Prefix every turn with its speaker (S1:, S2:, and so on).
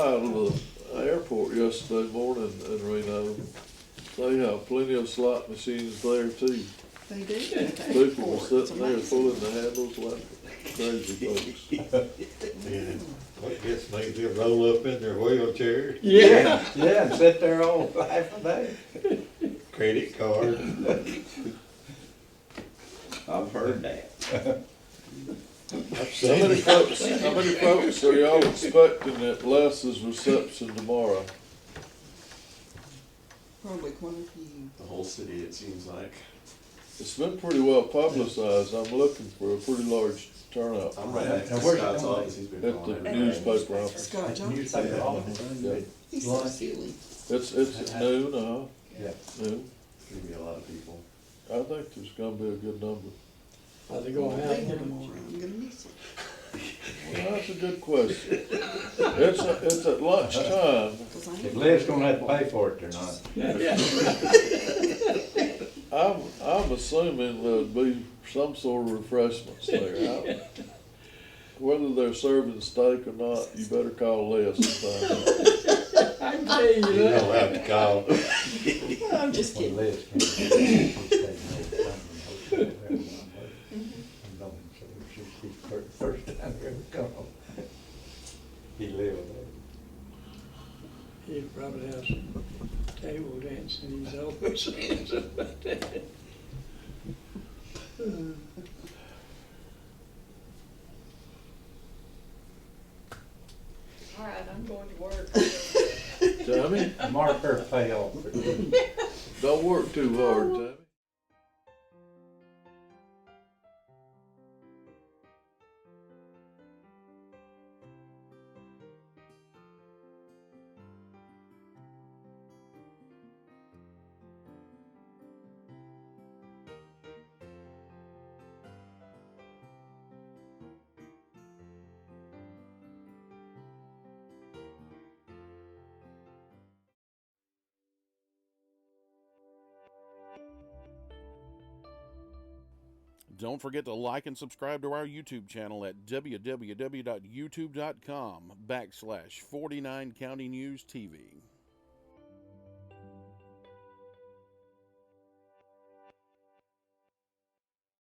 S1: out of the airport yesterday morning in Reno. They have plenty of slot machines there too.
S2: They do. in the
S1: People were
S2: airport. It's
S1: sitting there
S2: amazing.
S1: pulling the handles like crazy folks.
S3: Yeah, I guess maybe they'll roll up in their wheelchair,
S4: Yeah, yeah, and sit there all half a day.
S3: credit card.
S4: I've heard that.
S3: I've
S1: How
S3: seen
S1: many
S3: it.
S1: folks, how many folks are y'all expecting at Lass's reception tomorrow?
S2: Probably quite a few.
S5: The whole city, it seems like.
S1: It's been pretty well publicized. I'm looking for a pretty large turnout
S5: I'm right
S6: Yeah,
S5: next to
S6: now where's it
S5: Scott's
S6: gonna
S5: office,
S6: be?
S5: he's been
S1: at the
S5: calling everybody.
S1: newspaper office.
S2: Scott
S6: You
S2: Johnson,
S6: take it all the time,
S1: Yeah.
S2: he's so
S6: Lunch.
S2: silly.
S1: It's, it's at noon, uh,
S6: yeah.
S1: noon.
S5: It's gonna be a lot of people.
S1: I think there's gonna be a good number.
S6: How's it
S2: I'll be here tomorrow, I'm gonna miss it.
S1: Well, that's a good question. It's, a- it's at lunchtime.
S2: 'cause I
S4: If
S2: ain't-
S4: Liv's gonna have to pay for it or not.
S1: I'm, I'm assuming there'd be some sort of refreshments there. I- Whether they're serving steak or not, you better call Les and find out.
S3: You don't have to call.
S2: I'm just
S6: When
S2: kidding.
S6: Liz came. she said, "No, I'm in the hotel there, and I'm like, "I'm going." So she- she's fir- First time I ever come home. He lived there.
S7: He probably has some table dancing, he's always saying something about that.
S8: All right, I'm going to work.
S1: Tammy,
S4: Mark her pay off for this.
S1: don't work too hard, Tammy.
S9: Don't forget to like and subscribe to our YouTube channel at www.youtube.com backslash 49 County News TV.